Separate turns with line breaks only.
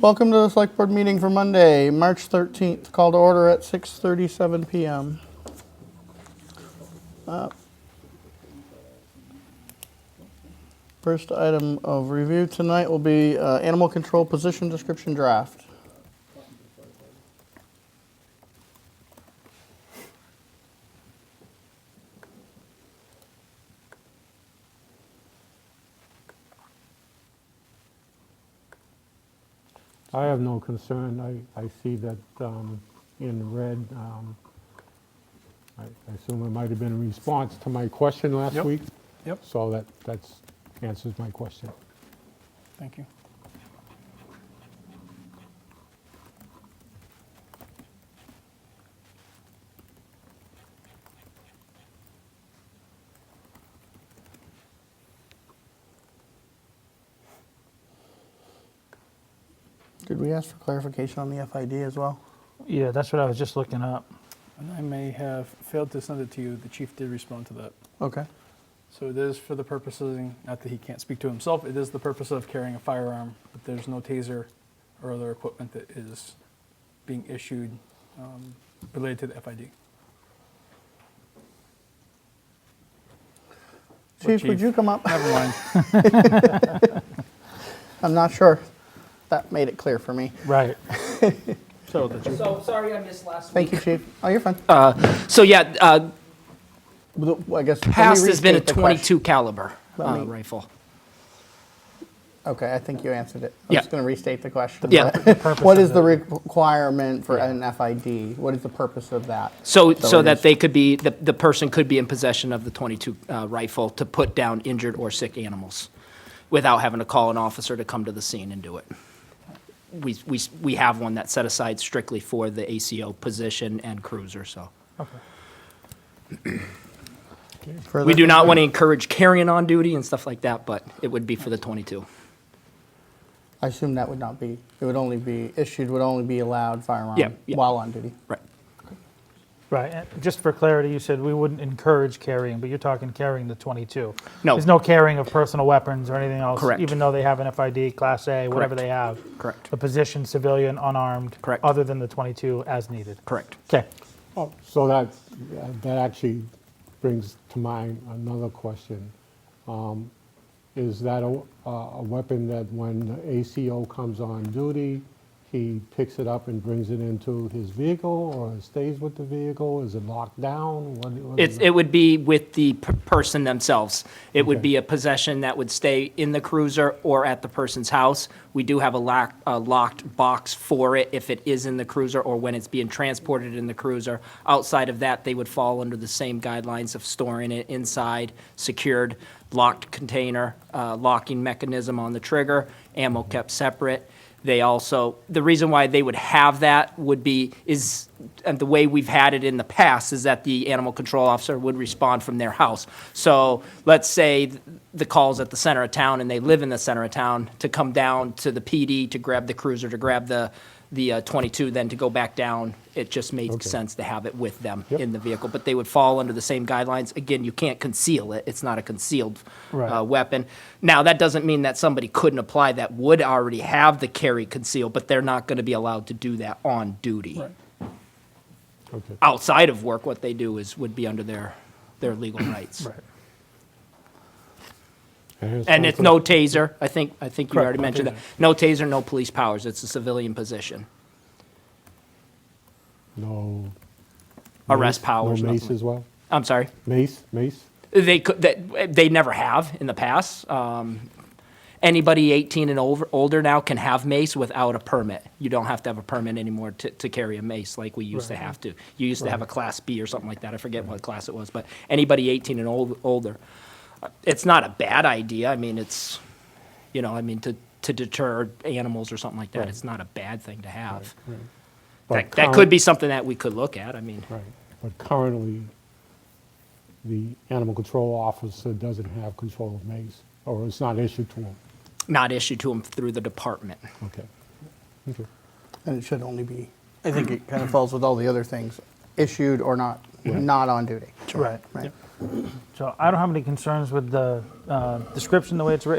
Welcome to the select board meeting for Monday, March 13th, call to order at 6:37 PM. Uh, First item of review tonight will be uh, animal control position description draft.
I have no concern. I, I see that um, in red. um, I I assume it might have been a response to my question last
Yep,
week.
yep.
So that, that's, answers my question.
Thank you.
Did we ask for clarification on the FID as well?
Yeah, that's what I was just looking up.
And I may have failed to send it to you. The chief did respond to that.
Okay.
So it is for the purposes, not that he can't speak to himself, it is the purpose of carrying a firearm, but there's no taser or other equipment that is being issued um, related to the FID. Or
Chief, would
chief.
you come up?
Never mind.
I'm not sure. That made it clear for me.
Right.
So the chief.
So, Uh, sorry I missed last
Thank you, chief. Oh, you're fine.
So, yeah, uh,
The- I guess. let me
past has been a
restate the question.
22 caliber
Let
uh,
me-
rifle.
Okay, I think you answered it. I'm
Yeah.
just going to restate the question.
Yeah.
What is the requirement for an FID? What is the purpose of that?
So,
So
so
it
that
is-
they could be, the, the person could be in possession of the 22 uh, rifle to put down injured or sick animals without having to call an officer to come to the scene and do it. We, we, we have one that's set aside strictly for the ACO position and cruiser, so.
Further-
We do not want to encourage carrying on duty and stuff like that, but it would be for the 22.
I assume that would not be, it would only be, issued would only be allowed firearm
Yeah, yeah.
while on duty.
Right.
Right. And just for clarity, you said we wouldn't encourage carrying, but you're talking carrying the 22.
No.
There's no carrying of personal weapons or anything else.
Correct.
Even though they have an FID, Class A, whatever
Correct.
they have.
Correct.
The position, civilian, unarmed.
Correct.
Other than the 22 as needed.
Correct.
Okay.
Oh.
So that, that actually brings to mind another question. Um, Is that a, a weapon that when the ACO comes on duty, he picks it up and brings it into his vehicle or it stays with the vehicle? Is it locked down? What- what is
It's, it would be with the p- person themselves. It would
Okay.
be a possession that would stay in the cruiser or at the person's house. We do have a lock, a locked box for it if it is in the cruiser or when it's being transported in the cruiser. Outside of that, they would fall under the same guidelines of storing it inside, secured, locked container, uh, locking mechanism on the trigger, ammo kept separate. They also, the reason why they would have that would be, is, and the way we've had it in the past, is that the animal control officer would respond from their house. So let's say th- the call's at the center of town and they live in the center of town, to come down to the PD to grab the cruiser, to grab the, the uh, 22, then to go back down, it just makes sense to have it with them in the vehicle. But they would fall under the same guidelines. Again, you can't conceal it, it's not a concealed
Right.
uh, weapon. Now, that doesn't mean that somebody couldn't apply that would already have the carry conceal, but they're not going to be allowed to do that on duty.
Okay.
Outside of work, what they do is, would be under their, their legal rights. And it's no taser, I think, I think you already mentioned that. No taser, no police powers, it's a civilian position.
No.
Arrest
mace-
powers,
No
nothing
mace
like-
as well?
I'm sorry?
Mace, mace?
They could, that, they never have in the past. Um, anybody 18 and over, older now can have mace without a permit. You don't have to have a permit anymore to, to carry a mace like we used to have to. You used to have a class B or something like that. I forget what class it was, but anybody 18 and old, older. Uh, It's not a bad idea. I mean, it's, you know, I mean, to, to deter animals or something like that, it's not a bad thing to have.
But
That, that could be something that we could look at. I mean,
current- Right, but currently, the animal control officer doesn't have control of mace, or it's not issued to him.
not issued to them through the department.
Okay. Okay.
And it should only be, I think it kind of falls with all the other things, issued or not, not on duty.
Right.
Right.
So I don't have any concerns with the uh, description, the way it's written.